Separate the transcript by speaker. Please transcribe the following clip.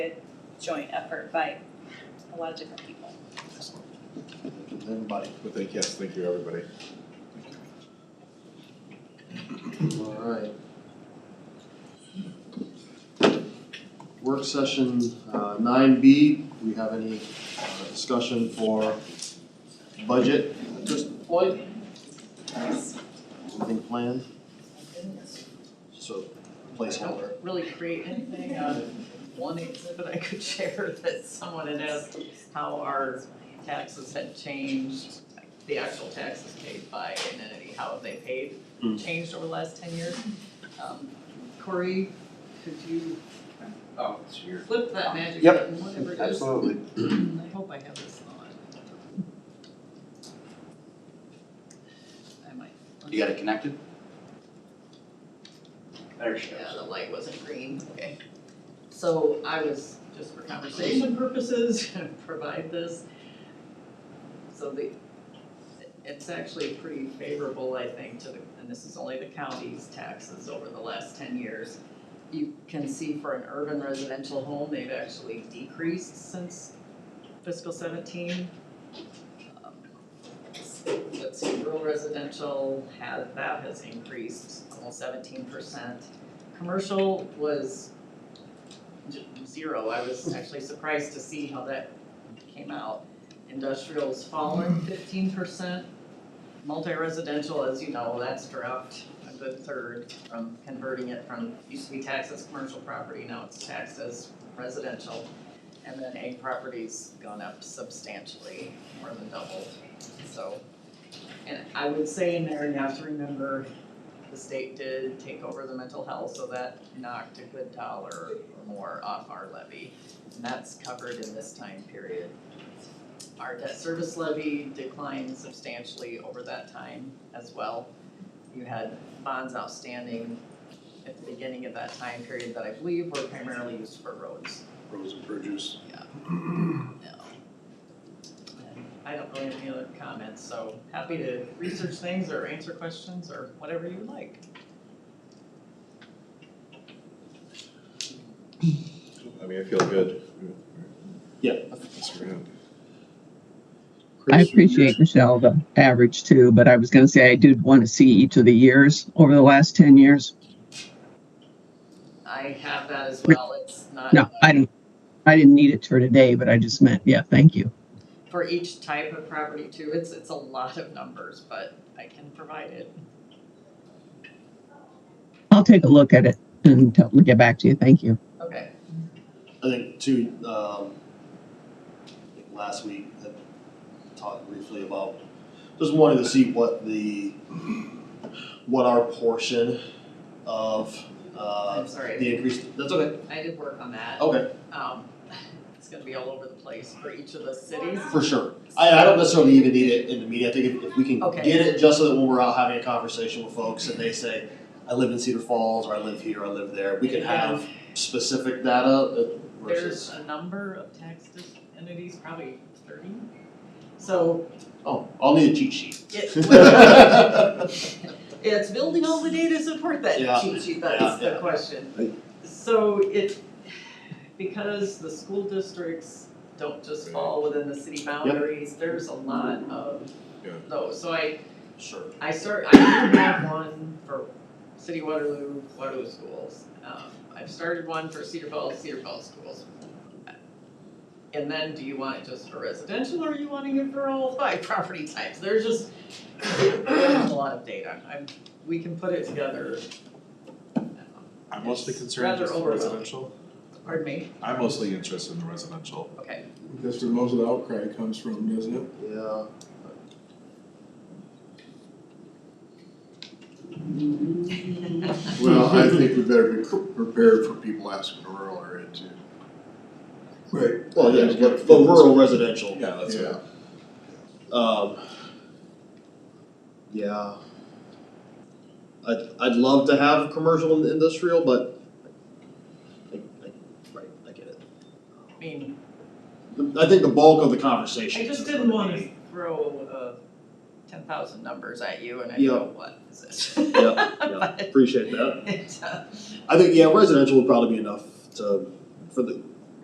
Speaker 1: joint effort by a lot of different people.
Speaker 2: Everybody.
Speaker 3: Well, thank, yes, thank you, everybody.
Speaker 2: All right. Work session uh, nine B, do we have any uh, discussion for budget at this point? Anything planned? So placeholder.
Speaker 4: really create anything out of one exhibit I could share that someone had asked how our taxes had changed, the actual taxes paid by an entity, how they paid,
Speaker 2: Hmm.
Speaker 4: changed over the last ten years. Um, Corey, could you
Speaker 5: Oh, it's here.
Speaker 4: flip that magic
Speaker 5: Yep,
Speaker 4: button, whatever it is?
Speaker 5: Absolutely.
Speaker 4: I hope I have this on. I might.
Speaker 5: You got it connected? There she
Speaker 4: Yeah,
Speaker 5: goes.
Speaker 4: the light wasn't green, okay. So I was, just for conversation purposes, gonna provide this. So the, it's actually pretty favorable, I think, to the, and this is only the county's taxes over the last ten years. You can see for an urban residential home, they've actually decreased since fiscal seventeen. Um, Let's see, rural residential has, that has increased almost seventeen percent. Commercial was j- zero, I was actually surprised to see how that came out. Industrial's fallen fifteen percent. Multi-residential, as you know, that's dropped a good third from converting it from, used to be taxed as commercial property, now it's taxed as residential. And then ag property's gone up substantially, more than doubled, so. And I would say in there, you have to remember, the state did take over the mental health, so that knocked a good dollar or more off our levy. And that's covered in this time period. Our debt service levy declined substantially over that time as well. You had bonds outstanding at the beginning of that time period that I believe were primarily used for roads.
Speaker 3: Roads and bridges.
Speaker 4: I don't really have any other comments, so happy to research things or answer questions or whatever you would like.
Speaker 3: I mean, I feel good.
Speaker 2: Yeah.
Speaker 3: That's around.
Speaker 6: I appreciate Michelle, the average too, but I was gonna say I did want to see each of the years over the last ten years.
Speaker 4: I have that as well, it's not.
Speaker 6: No, I didn't, I didn't need it for today, but I just meant, yeah, thank you.
Speaker 4: for each type of property too, it's, it's a lot of numbers, but I can provide it.
Speaker 6: I'll take a look at it and tell- get back to you. Thank you.
Speaker 4: Okay,
Speaker 2: I think too, um, I think last week, I talked briefly about, just wanted to see what the, what our portion of, uh,
Speaker 4: I'm sorry,
Speaker 2: the increase, that's okay,
Speaker 4: I did work on that.
Speaker 2: okay,
Speaker 4: Um, it's gonna be all over the place for each of the cities.
Speaker 2: for sure. I, I don't necessarily even need it in the meeting, I think if, if we can
Speaker 4: Okay.
Speaker 2: get it just so that when we're out having a conversation with folks and they say, I live in Cedar Falls, or I live here, I live there, we can have specific data uh,
Speaker 4: There's
Speaker 2: versus,
Speaker 4: a number of tax entities, probably thirty. So
Speaker 2: oh, I'll need a cheat sheet.
Speaker 4: it, It's building all the data to support that
Speaker 2: Yeah.
Speaker 4: cheat sheet,
Speaker 2: Yeah,
Speaker 4: that's
Speaker 2: yeah.
Speaker 4: the question. So it, because the school districts don't just fall within the city boundaries, there's a lot of
Speaker 3: Yeah.
Speaker 4: those. So I,
Speaker 2: Sure.
Speaker 4: I start, I do have one for City Waterloo, Waterloo schools. Um, I've started one for Cedar Falls, Cedar Falls schools. And then do you want it just for residential or are you wanting it for all five property types? There's just there's a lot of data. I'm, we can put it together.
Speaker 3: I'm mostly
Speaker 4: It's
Speaker 3: concerned
Speaker 4: rather
Speaker 3: just the
Speaker 4: overwhelming.
Speaker 3: residential.
Speaker 4: Pardon me?
Speaker 3: I'm mostly interested in the residential.
Speaker 4: Okay.
Speaker 7: That's where most of the outcry comes from, doesn't it?
Speaker 2: Yeah.
Speaker 3: Well, I think we better be prepared for people asking to rural area too.
Speaker 7: Right.
Speaker 2: Well, yeah, but but rural residential.
Speaker 3: Yeah, that's right.
Speaker 2: Um. Yeah. I'd I'd love to have commercial and industrial, but I I right, I get it.
Speaker 4: I mean,
Speaker 2: I think the bulk of the conversation.
Speaker 4: I just didn't want to throw uh, 10,000 numbers at you and I
Speaker 2: Yeah.
Speaker 4: go, what is this?
Speaker 2: Yeah, yeah, appreciate that.
Speaker 4: But it, uh,
Speaker 2: I think, yeah, residential would probably be enough to, for the,